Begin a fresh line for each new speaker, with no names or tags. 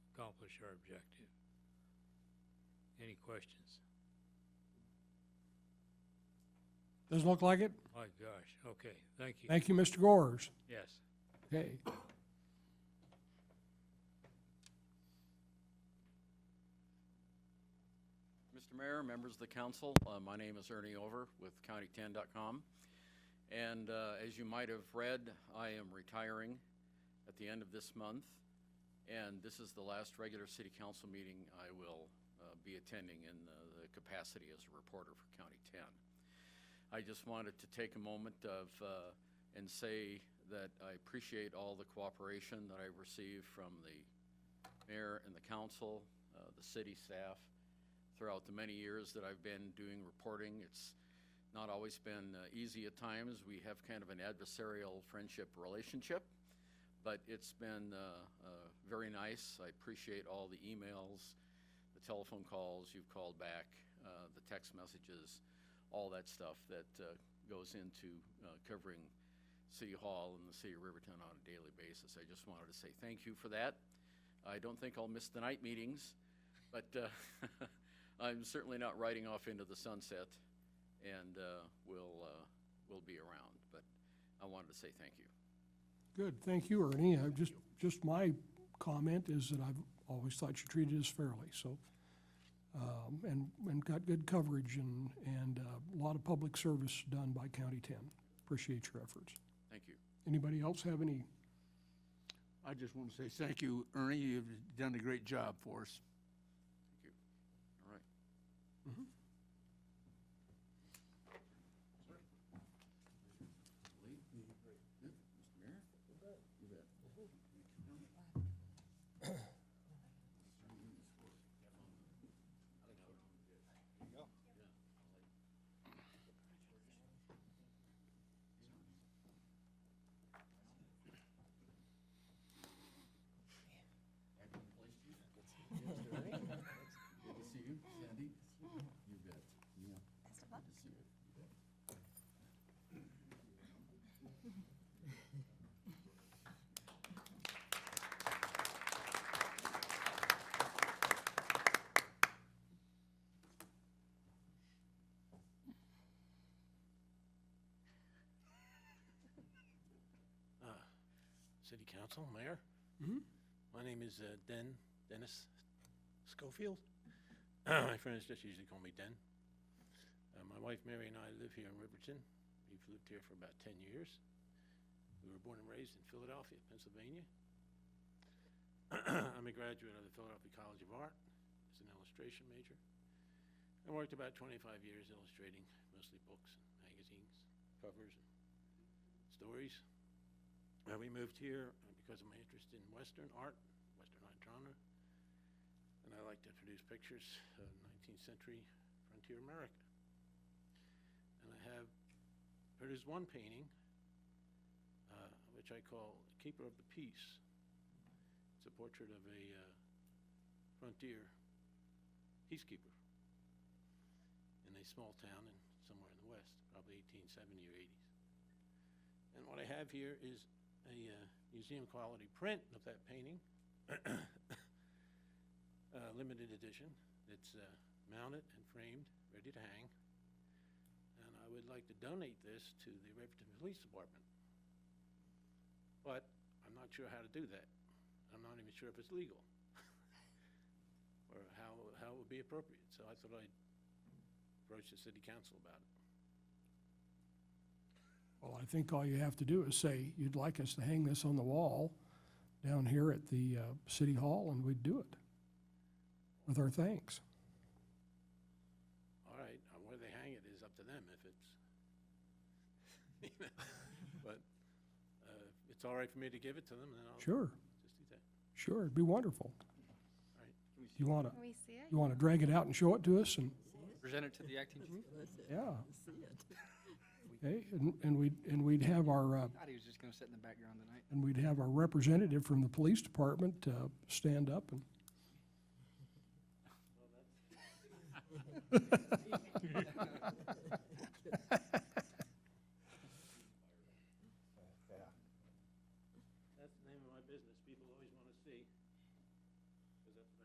accomplish our objective. Any questions?
Doesn't look like it?
My gosh, okay, thank you.
Thank you, Mr. Gores.
Yes.
Okay.
Mr. Mayor, members of the council, uh, my name is Ernie Over with county10.com. And uh, as you might have read, I am retiring at the end of this month. And this is the last regular city council meeting I will uh, be attending in uh, the capacity as a reporter for County 10. I just wanted to take a moment of, uh, and say that I appreciate all the cooperation that I've received from the mayor and the council, uh, the city staff, throughout the many years that I've been doing reporting. It's not always been uh, easy at times. We have kind of an adversarial friendship relationship, but it's been uh, uh, very nice. I appreciate all the emails, the telephone calls you've called back, uh, the text messages, all that stuff that uh, goes into uh, covering City Hall and the City of Riverton on a daily basis. I just wanted to say thank you for that. I don't think I'll miss the night meetings, but uh, I'm certainly not riding off into the sunset, and uh, we'll uh, we'll be around. But I wanted to say thank you.
Good, thank you, Ernie. I just, just my comment is that I've always thought you treated us fairly, so. Um, and, and got good coverage and, and uh, a lot of public service done by County Ten. Appreciate your efforts.
Thank you.
Anybody else have any?
I just want to say thank you, Ernie. You've done a great job for us.
All right. Good to see you, Sandy. You bet. Yeah. Good to see you.
City Council, Mayor.
Mhm.
My name is uh, Den, Dennis Schofield. My friends just usually call me Den. Uh, My wife Mary and I live here in Riverton. We've lived here for about 10 years. We were born and raised in Philadelphia, Pennsylvania. I'm a graduate of the Philadelphia College of Art as an illustration major. I worked about 25 years illustrating mostly books, and magazines, covers, and stories. Uh, we moved here uh, because of my interest in Western art, Western art genre, and I like to produce pictures of 19th century frontier America. And I have produced one painting, uh, which I call Keeper of the Peace. It's a portrait of a uh, frontier peacekeeper in a small town in somewhere in the west, probably 1870 or 80s. And what I have here is a uh, museum quality print of that painting, uh, limited edition. It's uh, mounted and framed, ready to hang. And I would like to donate this to the Riverton Police Department. But I'm not sure how to do that. I'm not even sure if it's legal or how, how it would be appropriate. So I thought I'd approach the city council about it.
Well, I think all you have to do is say, you'd like us to hang this on the wall down here at the uh, City Hall, and we'd do it. With our thanks.
All right, uh, where they hang it is up to them if it's, you know, but uh, if it's all right for me to give it to them, then I'll
Sure,
just do that.
sure, it'd be wonderful.
Right.
You wanna,
Can we see it?
you wanna drag it out and show it to us, and,
Present it to the acting chief?
yeah. Okay, and, and we'd, and we'd have our, uh,
Thought he was just gonna sit in the background tonight.
and we'd have our representative from the police department, uh, stand up and.